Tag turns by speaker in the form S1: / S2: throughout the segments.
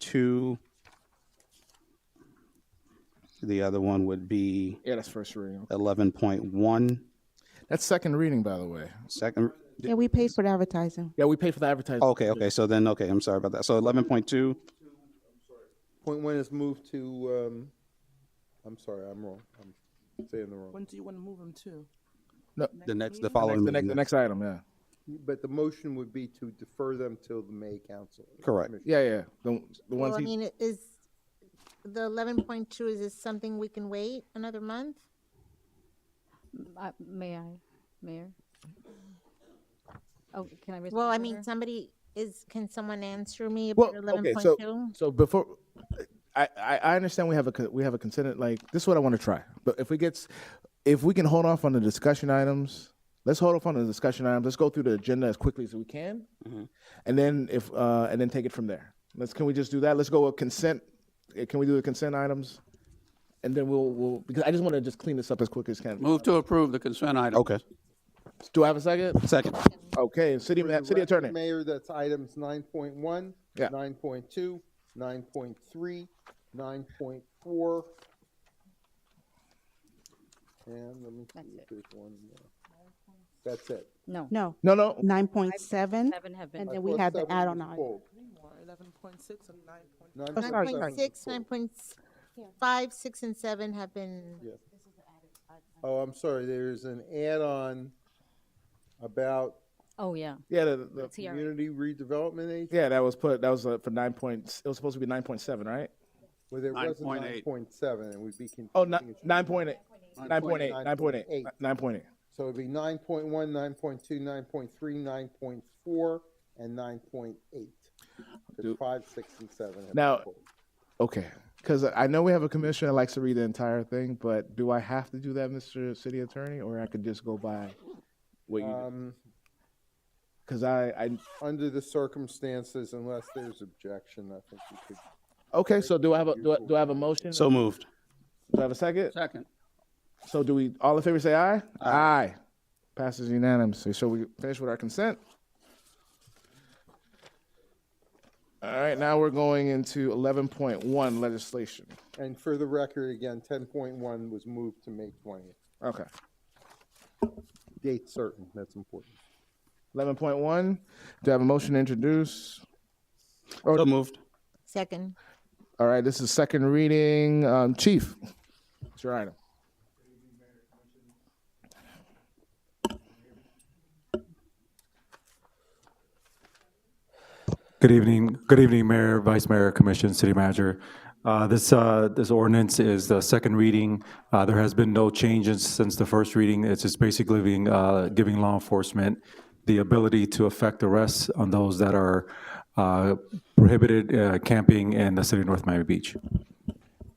S1: two. The other one would be
S2: Yeah, that's first reading.
S1: 11.1,
S2: That's second reading, by the way.
S1: second,
S3: Yeah, we paid for the advertising.
S2: Yeah, we pay for the advertising.
S1: okay, okay, so then, okay, I'm sorry about that. So 11.2,
S4: Point one is moved to, um, I'm sorry, I'm wrong. I'm saying the wrong.
S5: When do you want to move them to?
S1: the next, the
S2: Next,
S1: following.
S2: the, next, the
S1: meeting.
S2: next item, yeah.
S4: But the motion would be to defer them till the May council.
S1: Correct.
S2: Yeah, yeah. The, the ones
S6: Well, I
S2: he-
S6: mean, it is, the eleven point two, is this something we can wait another month?
S7: I- Uh, May I, Mayor? Oh, can I?
S6: Well, I
S7: respond to
S6: mean,
S7: her?
S6: somebody is, can someone answer me
S2: Well,
S6: about eleven
S2: okay,
S6: point
S2: so
S6: two?
S2: so before I, I I understand we have a co- we have a consent like this is what I want to try. But if we gets if we can hold off on the discussion items, let's hold off on the discussion items. Let's go through the agenda as quickly as we can, and then if uh, and then take it from there. Let's can we just do that? Let's go with consent. Uh, Can we do the consent items? And then we'll we'll because I just want to just clean this up as quick as can.
S8: Move to approve the consent item.
S1: Okay,
S2: Do I have a second?
S1: second,
S2: Okay, city ma- city attorney.
S4: Mayor, that's items nine point one,
S2: Yeah.
S4: nine point two, nine point three, nine point four. And let me
S7: That's
S4: see if
S7: it.
S4: there's one more. That's it.
S7: No.
S3: No,
S2: No, no.
S3: nine point seven,
S7: Seven have been.
S3: and
S4: I
S3: then we
S4: thought
S3: had the
S4: seven
S3: add-on
S4: was
S3: item.
S4: pulled.
S5: Eleven point six and nine point.
S4: Nine
S3: Oh,
S4: point
S3: sorry, sorry.
S6: Nine
S4: seven
S6: point
S4: was
S6: six,
S4: pulled.
S6: nine point five, six and seven have been,
S4: Yeah. Oh, I'm sorry, there's an add-on about
S7: Oh, yeah.
S2: Yeah, the, the,
S7: TRA.
S4: community redevelopment agency,
S2: yeah, that was put. That was uh, for nine points. It was supposed to be nine point seven, right?
S4: where there was a nine
S8: 9.8.
S4: point seven, and we'd be.
S2: Oh,
S4: confusing
S2: ni-
S4: it.
S2: nine point eight. Nine point eight.
S4: 9.8.
S2: Nine point eight. Nine point eight.
S4: So it'd be nine point one, nine point two, nine point three, nine point four, and nine point eight.
S2: Do-
S4: Five, six, and seven. have
S2: Now-
S4: been pulled.
S2: Okay. Because I know we have a commissioner that likes to read the entire thing, but do I have to do that, Mr. City Attorney, or I could just go by what you?
S4: Um,
S2: Because I, I.
S4: under the circumstances, unless there's objection, I think we could.
S2: Okay, so do I have a do I, do I have a motion?
S1: so moved.
S2: do I have a second?
S8: Second.
S2: So do we all in favor say aye? Aye. Passes unanimously. So we finish with our consent. All right, now we're going into eleven point one legislation.
S4: And for the record, again, ten point one was moved to May twentieth.
S2: Okay.
S4: Date certain, that's important.
S2: Eleven point one. Do I have a motion to introduce?
S1: So moved.
S6: second.
S2: All right, this is second reading. Um, Chief, it's your item.
S9: Good evening, good evening, Mayor, Vice Mayor, Commission, City Manager. Uh, This, uh, this ordinance is the second reading. Uh, There has been no changes since the first reading. It's just basically being, uh, giving law enforcement the ability to effect arrests on those that are uh, prohibited uh, camping in the city of North Miami Beach.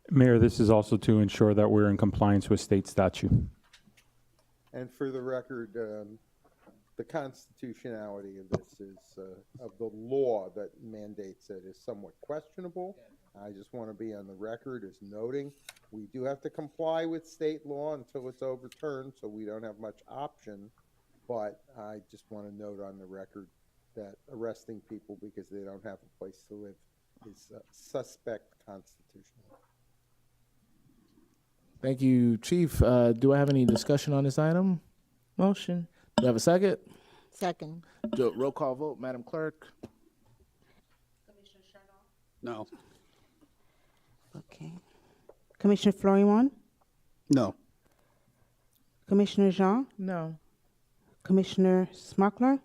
S10: Mayor, this is also to ensure that we're in compliance with state statute.
S4: And for the record, um, the constitutionality of this is, uh, of the law that mandates it is somewhat questionable. I just want to be on the record as noting, we do have to comply with state law until it's overturned, so we don't have much option. But I just want to note on the record that arresting people because they don't have a place to live is uh, suspect constitutional.
S2: Thank you, Chief. Uh, do I have any discussion on this item?
S3: Motion.
S2: Do I have a second?
S6: Second.
S2: Do, roll call vote, Madam Clerk.
S1: No.
S3: Okay. Commissioner Florimon,
S1: No.
S3: Commissioner Jean,
S5: No.
S3: Commissioner Smuckler,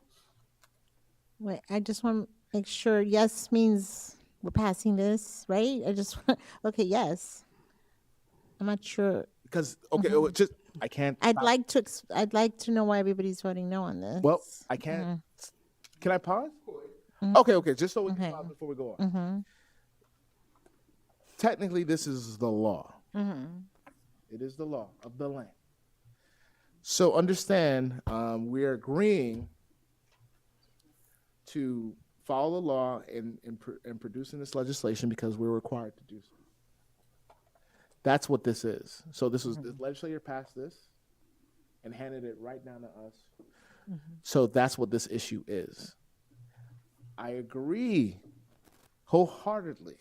S6: Wait, I just want to make sure, yes means we're passing this, right? I just, okay, yes. I'm not sure.
S2: Because okay, oh, just I can't.
S6: I'd like to, ex- I'd like to know why everybody's voting no on this.
S2: Well, I can't. Can I pause? Okay, okay. Just so we can
S6: Okay.
S2: pause before we go on. Technically, this is the law. It is the law of the land. So understand, um, we are agreeing to follow the law in, in, pr- in producing this legislation because we're required to do so. That's what this is. So this was the legislature passed this and handed it right down to us. So that's what this issue is. I agree wholeheartedly